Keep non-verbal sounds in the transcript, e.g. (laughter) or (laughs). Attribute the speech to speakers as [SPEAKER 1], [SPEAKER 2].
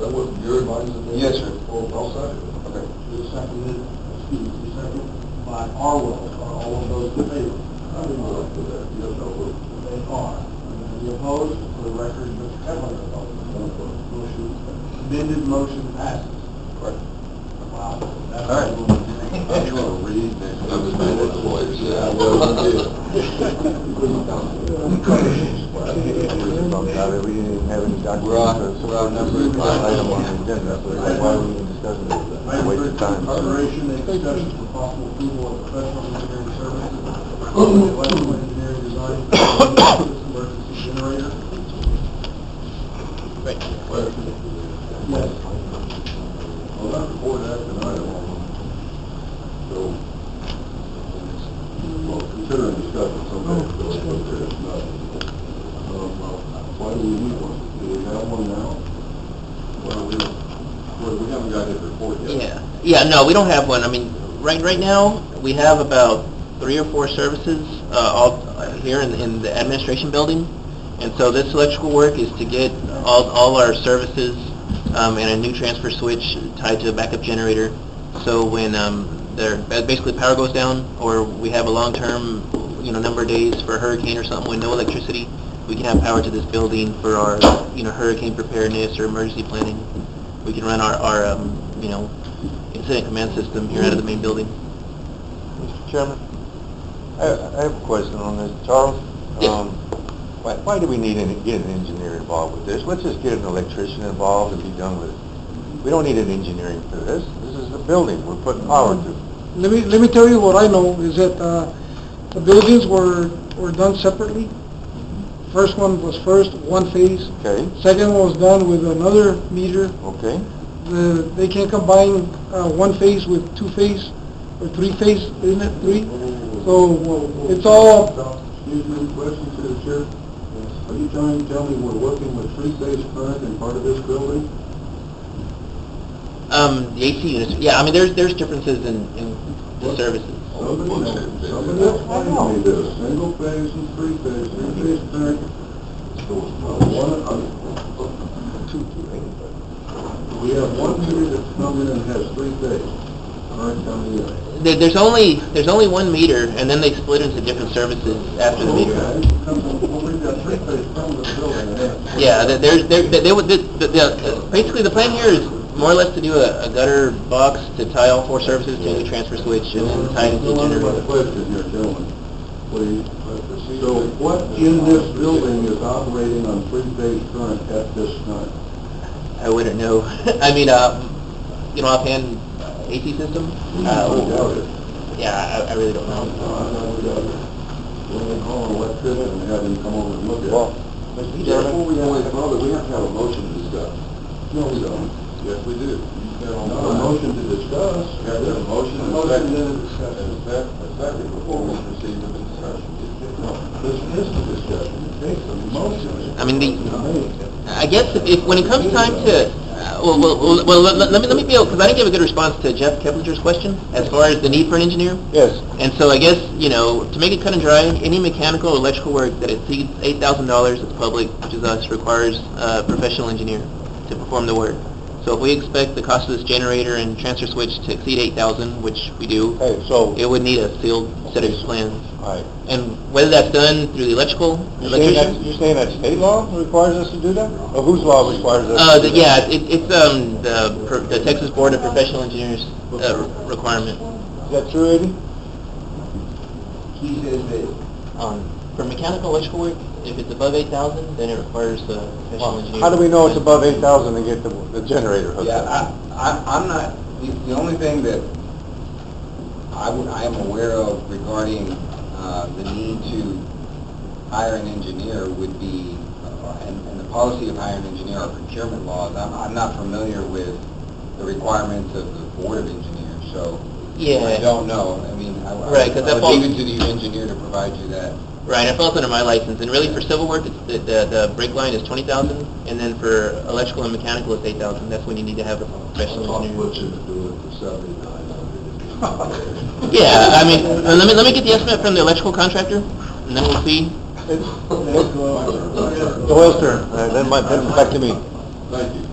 [SPEAKER 1] that what your advice is?
[SPEAKER 2] Yes, sir.
[SPEAKER 1] Well, I'll second.
[SPEAKER 2] Okay.
[SPEAKER 1] It's seconded, excuse me, it's seconded by Arwell, are all of those in favor? I would not like to that, yes, I would. They are. Any opposed? For the record, Mr. Kevlin is opposed. Motion, amended motion passes.
[SPEAKER 2] Correct.
[SPEAKER 1] Wow.
[SPEAKER 2] All
[SPEAKER 1] That's
[SPEAKER 2] right.
[SPEAKER 1] a little-
[SPEAKER 2] (laughs) I'm going to read this.
[SPEAKER 1] I'm just gonna let the lawyers, yeah, I will, you
[SPEAKER 2] Well, We didn't even have any documents.
[SPEAKER 1] We're on- we're on number five.
[SPEAKER 2] Item on the agenda, so why are we even discussing this?
[SPEAKER 1] Item
[SPEAKER 2] Waste
[SPEAKER 1] three,
[SPEAKER 2] of time.
[SPEAKER 1] Preparation and discussion for possible approval of professional engineering services, electrical engineering design, for this emergency generator. Yes. Well, that's board action item. So, well, considering discussion someday, so it's okay, it's not. Um, Why do we need one? Do we have one now? Well, we, well, we haven't got his report yet.
[SPEAKER 3] Yeah, yeah, no, we don't have one. I mean, right, right now, we have about three or four services, uh, all uh, here in, in the administration building. And so this electrical work is to get all, all our services, um, and a new transfer switch tied to a backup generator. So when, um, there, ba- basically power goes down, or we have a long-term, you know, number of days for a hurricane or something with no electricity, we can have power to this building for our, you know, hurricane preparedness or emergency planning. We can run our, our, um, you know, incident command system here out of the main building.
[SPEAKER 2] Mr. Chairman, I, I have a question on this. Charles?
[SPEAKER 3] Yes.
[SPEAKER 2] um, Why, why do we need an, get an engineer involved with this? Let's just get an electrician involved and be done with it. We don't need an engineering for this. This is a building we're putting power to.
[SPEAKER 4] Let me, let me tell you what I know, is that, uh, the buildings were, were done separately. First one was first, one phase.
[SPEAKER 2] Okay?
[SPEAKER 4] Second one was done with another meter.
[SPEAKER 2] Okay?
[SPEAKER 4] The, they can combine, uh, one phase with two phase, or three phase, isn't it, three? So, it's all,
[SPEAKER 1] Excuse me, question to the chair. Are you trying to tell me we're working with three-phase current in part of this building?
[SPEAKER 3] Um, the AC units, yeah, I mean, there's, there's differences in, in the services.
[SPEAKER 1] Somebody, somebody explain me this, single phase and three phase, three phase current. Uh, One, uh, two, we have one meter that's coming in and has three phase current coming in.
[SPEAKER 3] There, there's only, there's only one meter, and then they split into different services after the meter.
[SPEAKER 1] Okay, comes on- well, we've got three phase coming to the building. and that's-
[SPEAKER 3] Yeah, there- there's, there, they, they would, the, the- the, basically, the plan here is more or less to do a, a gutter box to tie all four services to the transfer switch, and then tie into the
[SPEAKER 1] One
[SPEAKER 3] generator.
[SPEAKER 1] question here, gentlemen, please. So what in this building is operating on three-phase current at this time?
[SPEAKER 3] I wouldn't know, (laughs) I mean, uh, you know, offhand, uh, AC system?
[SPEAKER 1] I doubt
[SPEAKER 3] Uh,
[SPEAKER 1] it.
[SPEAKER 3] yeah, I, I really don't
[SPEAKER 1] I
[SPEAKER 3] know.
[SPEAKER 1] doubt it. When they call an electrician and have him come over and look at
[SPEAKER 2] Well,
[SPEAKER 1] it.
[SPEAKER 3] Mr.
[SPEAKER 1] Before we go any further, we have to have a motion to discuss. No, we don't. Yes, we do. Not a motion to discuss. Yeah, there's a motion and a second. And a sec- a second before we proceed with the discussion. No, This is the discussion, it takes a motion.
[SPEAKER 3] I mean, the-
[SPEAKER 1] It's not made.
[SPEAKER 3] I guess if- if, when it comes time to, uh, well, well, well, well, let let me, let me be, because I didn't give a good response to Jeff Keplinger's question as far as the need for an engineer.
[SPEAKER 2] Yes.
[SPEAKER 3] And so I guess, you know, to make it cut and dry, any mechanical or electrical work that exceeds eight thousand dollars is public, which is us, requires a professional engineer to perform the work. So if we expect the cost of this generator and transfer switch to exceed eight thousand, which we do,
[SPEAKER 2] Hey, so,
[SPEAKER 3] it would need a sealed set of plans.
[SPEAKER 2] all right.
[SPEAKER 3] And whether that's done through the electrical,
[SPEAKER 2] You're saying that,
[SPEAKER 3] electrician?
[SPEAKER 2] you're saying that state law requires us to do that? Or whose law requires us?
[SPEAKER 3] Uh,
[SPEAKER 2] to
[SPEAKER 3] the-
[SPEAKER 2] do that?
[SPEAKER 3] yeah, it, it's, um, the, per- the Texas Board of Professional Engineers, uh, requirement
[SPEAKER 2] Is that true, Eddie?
[SPEAKER 1] He says that
[SPEAKER 5] Um,
[SPEAKER 3] on, for mechanical electrical work, if it's above eight thousand, then it requires a professional engineer.
[SPEAKER 2] How do we know it's above eight thousand and get the, the generator hooked
[SPEAKER 5] Yeah,
[SPEAKER 2] up?
[SPEAKER 5] I, I, I'm not, the, the only thing that I would, I am aware of regarding, uh, the need to hire an engineer would be, uh, and, and the policy of hiring an engineer or procurement laws, I'm, I'm not familiar with the requirements of the Board of Engineers, so
[SPEAKER 2] Oh
[SPEAKER 5] I
[SPEAKER 3] Yeah,
[SPEAKER 5] don't know, I mean, I, I
[SPEAKER 3] Right, 'cause that
[SPEAKER 5] would
[SPEAKER 3] falls-
[SPEAKER 5] leave it to the engineer to provide you that.
[SPEAKER 3] right, it falls under my license, and really for civil work, it's, the, the, the brake line is twenty thousand, and then for electrical and mechanical, it's eight thousand, that's when you need to have a professional
[SPEAKER 2] Oh.
[SPEAKER 1] I'll
[SPEAKER 3] engineer.
[SPEAKER 1] put you to do it for seventy-nine hundred.
[SPEAKER 3] (laughs) Yeah, I mean, uh,
[SPEAKER 1] (laughs)
[SPEAKER 3] let me, let me get the estimate from the electrical contractor, and then we'll see.
[SPEAKER 2] Doyle's turn, Uh, that might, that's back to me.
[SPEAKER 1] Thank you.